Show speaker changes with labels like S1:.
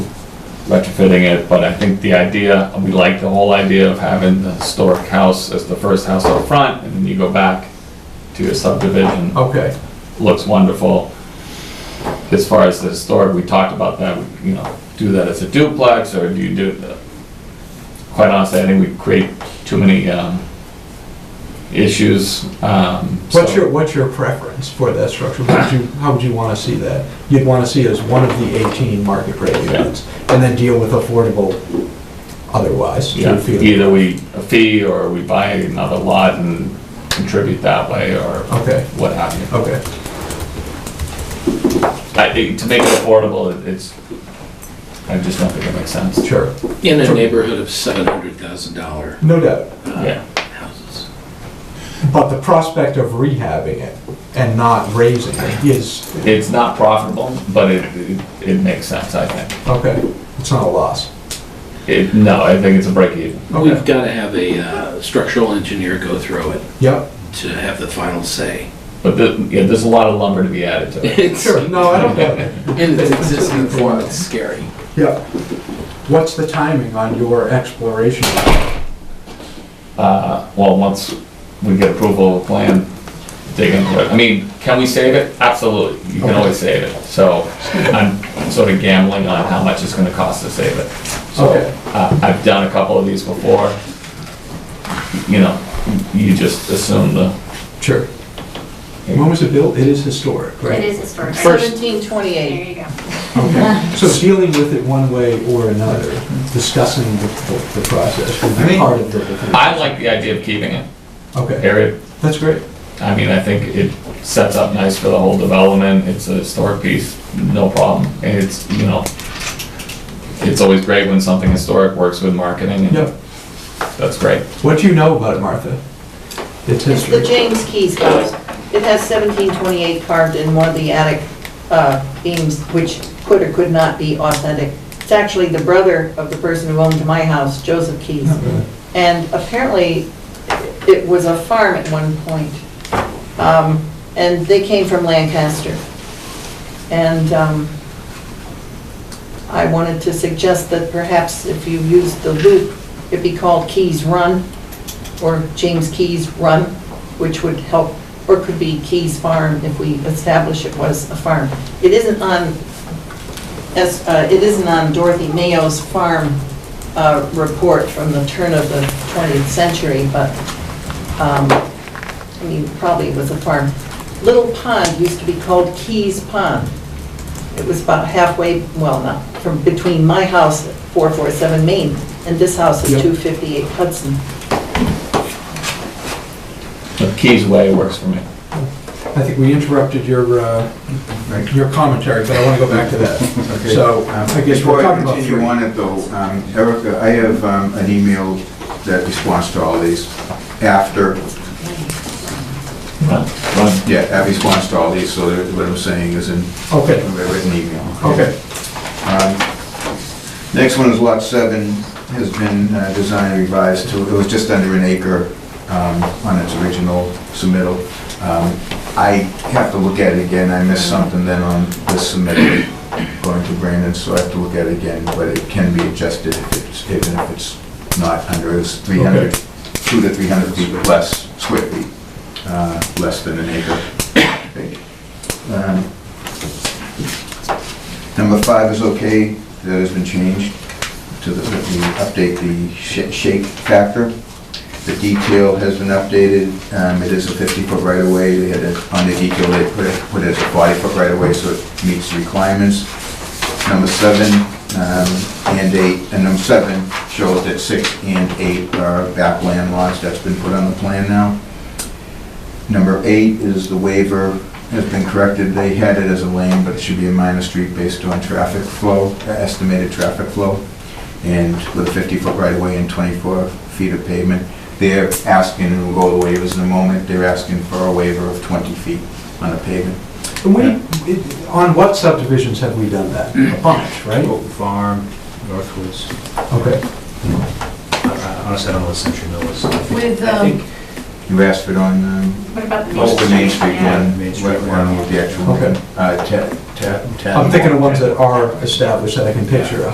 S1: retrofitting it, but I think the idea, we like the whole idea of having the historic house as the first house up front, and then you go back to your subdivision.
S2: Okay,
S1: Looks wonderful. As far as the historic, we talked about that, we, you know, do that as a duplex, or do you do, quite honestly, I think we create too many, um, issues, um.
S2: what's
S1: so-
S2: your, what's your preference for that structure? Would you, how would you want to see that? You'd want to see it as one of the 18 market rate units, and then deal with affordable otherwise. do you
S1: Yeah,
S2: feel?
S1: either we, a fee, or we buy another lot and contribute that way, or
S2: Okay,
S1: what have you.
S2: okay.
S1: I think to make it affordable, it- it's, I just don't think it makes sense.
S2: Sure,
S3: In a neighborhood of seven hundred thousand dollar uh,
S2: no doubt.
S1: Yeah.
S3: houses.
S2: But the prospect of rehabbing it and not raising it is,
S1: It's not profitable, but it, it- it makes sense, I think.
S2: okay, it's not a loss.
S1: It, no, I think it's a break even.
S3: We've got to have a uh, structural engineer go through it
S2: Yep,
S3: to have the final say.
S1: But the, yeah, there's a lot of lumber to be added to it.
S3: It's
S2: sure,
S3: in
S2: no, I don't get it.
S3: its existing form, it's scary.
S2: Yep. What's the timing on your exploration?
S1: Uh, well, once we get approval of a plan, dig into it. I mean, can we save it? Absolutely. You can always save it. So I'm sort of gambling on how much it's gonna cost to save it. So,
S2: Okay.
S1: uh, I've done a couple of these before. You know, you just assume the
S2: Sure. When was it built? It is historic, right?
S4: It is historic.
S3: First-
S4: There
S5: 1728.
S4: you go.
S2: Okay, so dealing with it one way or another, discussing the, the- the process would
S6: I
S2: be
S6: mean-
S2: part of the.
S1: I like the idea of keeping it,
S2: Okay,
S1: period.
S2: that's great.
S1: I mean, I think it sets up nice for the whole development, it's a historic piece, no problem. And it's, you know, it's always great when something historic works with marketing,
S2: Yep.
S1: and that's great.
S2: What do you know about it, Martha? It's
S5: It's the
S2: history.
S5: James Keys house. It has 1728 carved in one of the attic uh, beams, which could or could not be authentic. It's actually the brother of the person who owned my house, Joseph Keys. And apparently, it was a farm at one point. Um, And they came from Lancaster. And um, I wanted to suggest that perhaps if you use the loop, it be called Keys Run, or James Keys Run, which would help, or could be Keys Farm if we establish it was a farm. It isn't on, as, uh, it isn't on Dorothy Mayo's farm uh, report from the turn of the 20th century, but, um, I mean, probably it was a farm. Little Pond used to be called Keys Pond. It was about halfway, well, not, from between my house, 447 Main, and this house is
S2: Yep.
S5: 258 Hudson.
S1: But Keys Way works for me.
S2: I think we interrupted your, uh, your commentary, but I want to go back to that.
S6: Okay.
S2: So,
S6: Um,
S2: I guess
S6: Before
S2: we're
S6: I
S2: talking about
S6: continue
S2: three.
S6: on it though, um, Erica, I have um, an email that responds to all these after,
S1: Run, run.
S6: yeah, that responds to all these, so that what I'm saying is in
S2: Okay,
S6: a written email.
S2: okay.
S6: Um, Next one is lot seven, has been uh, designed and revised to, it was just under an acre um, on its original submittal. Um, I have to look at it again, I missed something then on this submittal going to Brandon, so I have to look at it again, but it can be adjusted if it's, even if it's not under, it's 300, two to 300 feet less, square feet, uh, less than an acre. Um, Number five is okay, that has been changed to the, that we update the sh- shape factor. The detail has been updated, um, it is a fifty-foot right-of-way, they had, it- on the detail, they put it, put it as a forty-foot right-of-way, so it meets the requirements. Number seven, um, and eight, and number seven shows that six and eight are backland lots, that's been put on the plan now. Number eight is the waiver has been corrected. They had it as a lane, but it should be a minor street based on traffic flow, uh, estimated traffic flow, and with a 50-foot right-of-way and 24 feet of pavement. They're asking, and we'll go to waivers in a moment, they're asking for a waiver of 20 feet on a pavement.
S2: And we, it- on what subdivisions have we done that?
S6: Mm.
S2: A bunch, right?
S7: Oak Farm, Northwoods,
S2: Okay,
S7: Uh, honestly, I don't know what Century Mill is. I think-
S4: With,
S7: I think
S6: You asked for it on, um,
S4: What about the
S6: what's the Main Street
S4: Yeah.
S6: one?
S7: Main Street,
S6: What one with the actual,
S2: Okay.
S6: uh, ta- ta- ta-
S2: I'm thinking of ones that are established that I can picture.